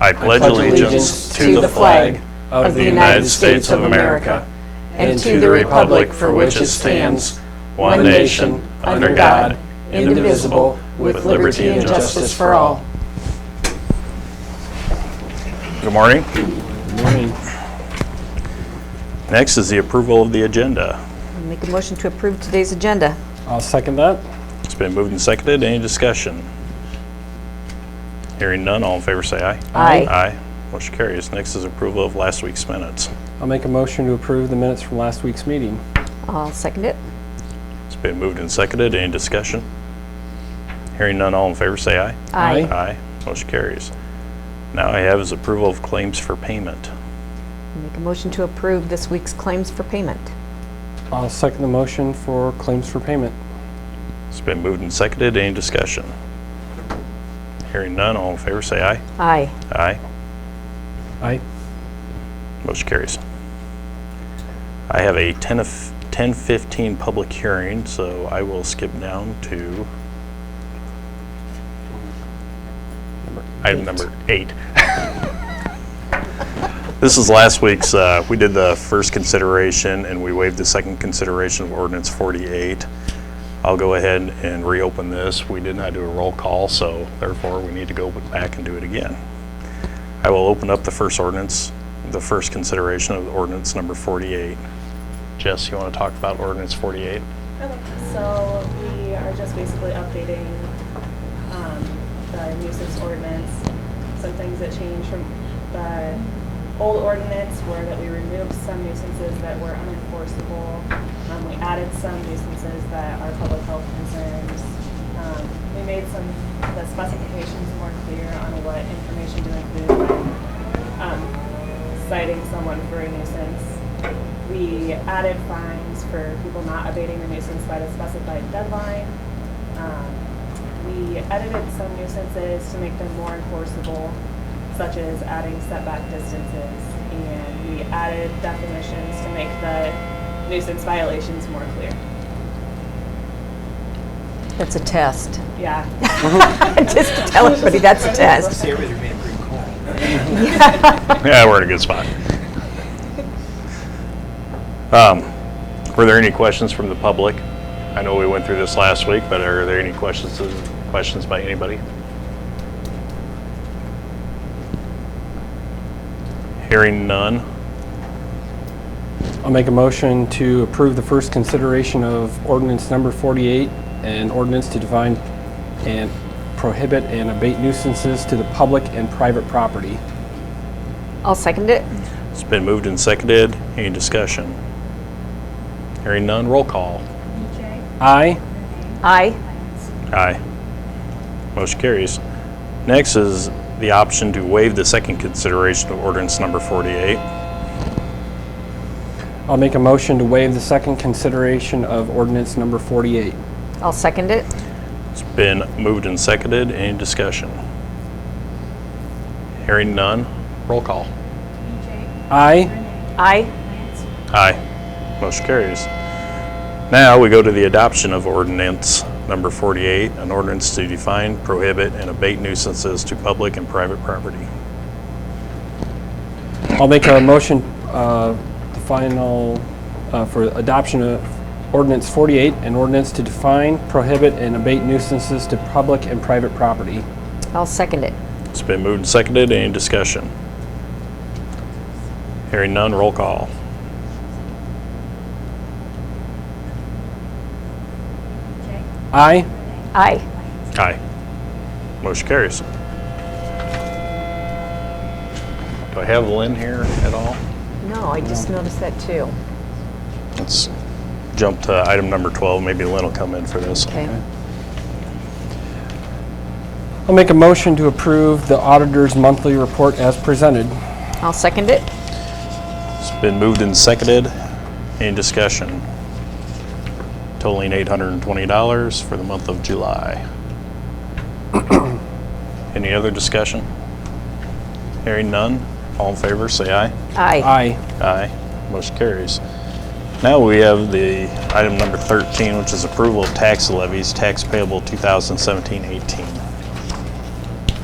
I pledge allegiance to the flag of the United States of America and to the republic for which it stands, one nation, under God, indivisible, with liberty and justice for all. Good morning. Morning. Next is the approval of the agenda. Make a motion to approve today's agenda. I'll second that. It's been moved and seconded. Any discussion? Hearing none, all in favor say aye. Aye. Aye. Motion carries. Next is approval of last week's minutes. I'll make a motion to approve the minutes from last week's meeting. I'll second it. It's been moved and seconded. Any discussion? Hearing none, all in favor say aye. Aye. Aye. Motion carries. Now I have is approval of claims for payment. Make a motion to approve this week's claims for payment. I'll second the motion for claims for payment. It's been moved and seconded. Any discussion? Hearing none, all in favor say aye. Aye. Aye. Aye. Motion carries. I have a 10 of, 10:15 public hearing, so I will skip down to item number eight. This is last week's, uh, we did the first consideration and we waived the second consideration of ordinance 48. I'll go ahead and reopen this. We did not do a roll call, so therefore we need to go back and do it again. I will open up the first ordinance, the first consideration of ordinance number 48. Jess, you want to talk about ordinance 48? Okay, so we are just basically updating um, the nuisance ordinance. Some things that changed from the old ordinance were that we removed some nuisances that were unenforceable. Um, We added some nuisances that are public health concerns. Um, We made some, the specifications more clear on what information to include when um, citing someone for a nuisance. We added fines for people not abating the nuisance by the specified deadline. Um, We edited some nuisances to make them more enforceable, such as adding setback distances. And we added definitions to make the nuisance violations more clear. That's a test. Yeah. Just to tell everybody that's a test. Yeah, we're in a good spot. Um, Were there any questions from the public? I know we went through this last week, but are there any questions, questions by anybody? Hearing none. I'll make a motion to approve the first consideration of ordinance number 48, an ordinance to define and prohibit and abate nuisances to the public and private property. I'll second it. It's been moved and seconded. Any discussion? Hearing none, roll call. Aye. Aye. Aye. Motion carries. Next is the option to waive the second consideration of ordinance number 48. I'll make a motion to waive the second consideration of ordinance number 48. I'll second it. It's been moved and seconded. Any discussion? Hearing none, roll call. Aye. Aye. Aye. Motion carries. Now we go to the adoption of ordinance number 48, an ordinance to define, prohibit, and abate nuisances to public and private property. I'll make a motion, uh, the final, uh, for adoption of ordinance 48, an ordinance to define, prohibit, and abate nuisances to public and private property. I'll second it. It's been moved and seconded. Any discussion? Hearing none, roll call. Aye. Aye. Aye. Motion carries. Do I have Lynn here at all? No, I just noticed that too. Let's jump to item number 12. Maybe Lynn will come in for this. Okay. I'll make a motion to approve the auditor's monthly report as presented. I'll second it. It's been moved and seconded. Any discussion? Totaling $820 for the month of July. Any other discussion? Hearing none, all in favor, say aye. Aye. Aye. Aye. Motion carries. Now we have the item number 13, which is approval of tax levies, tax payable 2017-18.